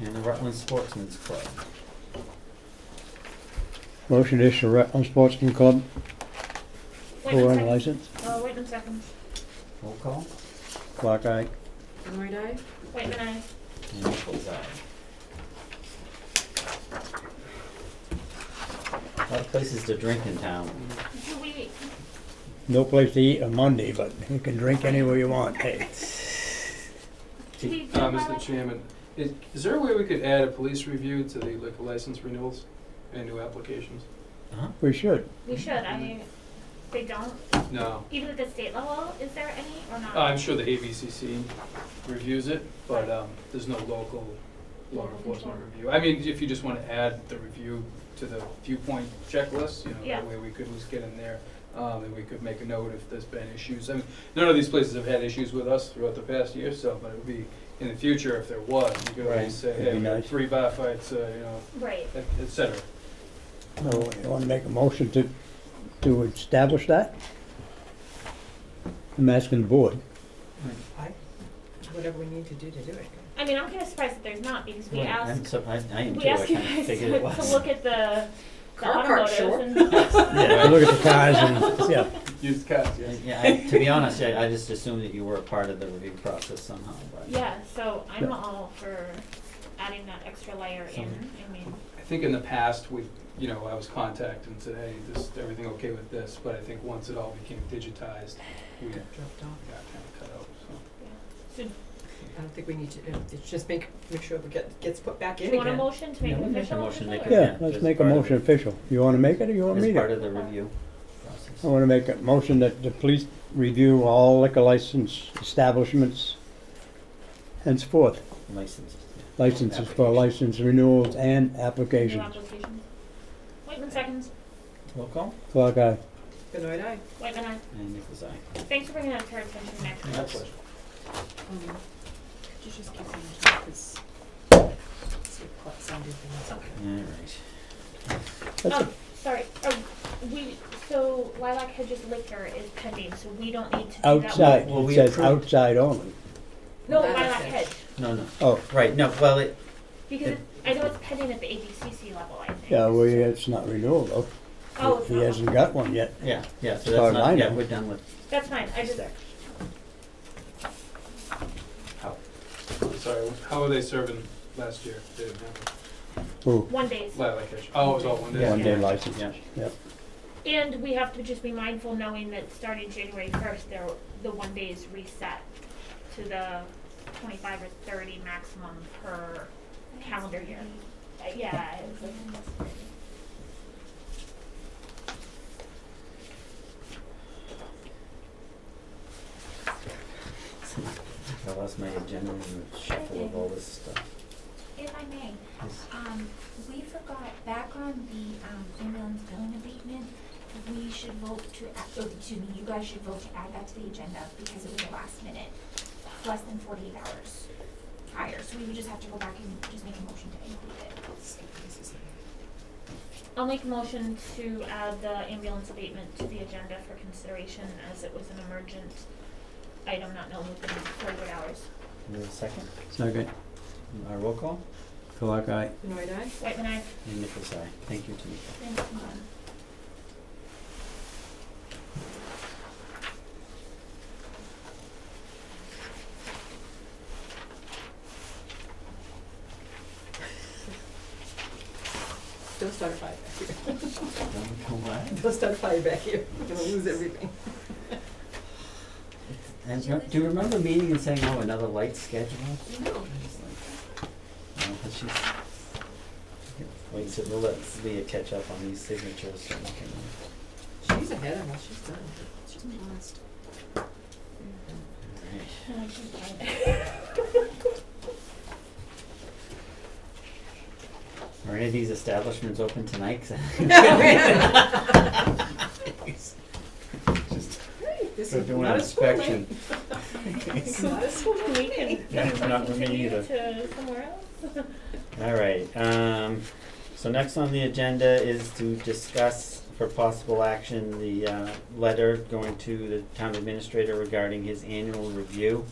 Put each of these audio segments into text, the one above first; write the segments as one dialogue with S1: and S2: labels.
S1: and the Rutland Sportsman's Club.
S2: Motion to issue Rutland Sportsman Club
S3: Wait a
S2: pouring
S3: second.
S2: license.
S3: Oh, wait a second.
S1: Roll call,
S2: Clock eye.
S4: Benoit eye?
S3: Wait a minute.
S1: and Nichols' eye. A lot of places to drink in town.
S3: Do we,
S2: No place to eat on Monday, but you can drink anywhere you want, hey.
S3: do we do
S5: Uh,
S3: by
S5: Mr.
S3: like-
S5: Chairman, is, is there a way we could add a police review to the liquor license renewals and new applications?
S2: We should.
S3: We should, I mean, they don't,
S5: No.
S3: even at the state level, is there any or not?
S5: Uh, I'm sure the ABCC reviews it, but, um, there's no local law enforcement review. I mean, if you just wanna add the review to the viewpoint checklist, you know,
S3: Yeah.
S5: that way we could just get in there. Um, and we could make a note if there's been issues. I mean, none of these places have had issues with us throughout the past year, so, but it would be, in the future, if there was, you could
S2: Right.
S5: always say,
S2: It'd be
S5: hey, we had
S2: nice.
S5: three bar fights, uh, you know,
S3: Right,
S5: et et cetera.
S2: No, you wanna make a motion to, to establish that? I'm asking the board.
S4: I, whatever we need to do to do it.
S3: I mean, I'm kinda surprised that there's not, because we
S1: Wait, I'm
S3: asked,
S1: surprised, I am too,
S3: we
S1: I
S3: asked you
S1: kinda
S3: guys to
S1: figured it was.
S3: to look at the, the
S4: Car part, sure.
S3: automotives and,
S1: Yeah.
S2: Look at the cars and, yeah.
S5: Used cars, yes.
S1: Yeah, I, to be honest, I, I just assumed that you were a part of the review process somehow, but.
S3: yeah, so I'm
S2: Yeah.
S3: all for adding that extra layer in, I mean,
S5: I think in the past, we, you know, I was contacted and said, hey, this, everything okay with this? But I think once it all became digitized, we got kind
S4: Dropped off.
S5: of cut out, so.
S3: so
S4: I don't think we need to, uh, it's just make, make sure we get, gets put back
S3: do
S4: in
S3: you want a
S4: again.
S3: motion to make
S1: Yeah,
S3: it
S1: we make a
S3: official?
S1: motion, make
S3: or-
S1: it-
S2: Yeah,
S1: Yeah,
S2: let's
S1: as
S2: make a
S1: part of
S2: motion
S1: it.
S2: official. You wanna make it or you want me
S1: As
S2: to?
S1: part of the review
S2: I
S1: process.
S2: want to make a motion that the police review all liquor license establishments henceforth,
S1: Licenses,
S2: licenses for license renewals and
S3: New
S2: applications.
S3: applications. Wait a second,
S1: yeah. Roll call?
S2: Clock eye.
S4: Benoit eye?
S3: wait a minute,
S1: And Nichols' eye.
S3: thanks for bringing that to our attention next time.
S1: Yeah.
S4: Um, Could you just keep going this?
S1: Alright.
S2: That's
S3: Um, sorry, uh, we, so Lilac Hedges liquor is pending, so we don't need to do that one.
S2: outside,
S1: Well, we
S2: it says
S1: approved-
S2: outside only.
S3: No,
S4: Lilac
S3: Lilac
S4: Hedge.
S3: Hedge,
S1: No, no,
S2: Oh,
S1: right, no, well, it,
S3: because it- I know it's pending at the ABCC level, I think.
S2: yeah, well, yeah, it's not renewal though.
S3: Oh, it's
S2: He
S3: not.
S2: hasn't got one yet.
S1: yeah, yeah, so
S2: As far
S1: that's
S2: as I
S1: not, yeah,
S2: know.
S1: we're done with
S3: That's fine, I just,
S1: that. How,
S5: I'm Sorry, how were they serving last year? They didn't have a
S2: Ooh,
S3: one days.
S5: lilac hedge. Oh, it was all one day.
S1: Yeah.
S2: one day license,
S1: yeah,
S2: yep.
S3: And we have to just be mindful, knowing that starting January first, there, the one day is reset to the twenty-five or thirty maximum per calendar year. Uh, Yeah, it's like almost thirty.
S1: I lost my agenda in the shuffle of all this stuff.
S6: If I may,
S1: Yes.
S6: um, we forgot back on the, um, ambulance billing abatement, we should vote to, a- oh, excuse me, you guys should vote to add that to the agenda because it was the last minute, less than forty-eight hours prior, so we would just have to go back and just make a motion to include it.
S3: I'll make a motion to add the ambulance abatement to the agenda for consideration as it was an emergent item not known within forty-eight hours.
S1: Is there a second?
S2: Second,
S1: Our roll call?
S2: clock eye.
S4: Benoit eye?
S3: Wait, and I,
S1: And Nichols' eye. Thank you, Tamika.
S6: Thank you.
S4: Don't start a fire back here.
S1: Don't come back.
S4: Don't start a fire back here. We're gonna lose everything.
S1: And re- do you remember meeting and saying, oh, another light schedule?
S4: No.
S1: It's like, No, but she's, wait, so we'll let Leah catch up on these signatures so we can.
S4: She's ahead of us. She's done. She's blessed.
S1: Alright.
S3: and I keep going.
S1: Are any of these establishments open tonight? 'Cause
S4: This
S1: They're
S4: is
S1: doing
S4: not
S1: an
S4: a school night.
S1: inspection.
S4: This is not a school night.
S3: We can,
S1: Yeah,
S3: can we
S1: not with me
S3: continue
S1: either.
S3: to somewhere else?
S1: All right, um, so next on the agenda is to discuss for possible action the, uh, letter going to the town administrator regarding his annual review.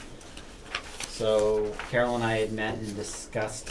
S1: So Carol and I had met and discussed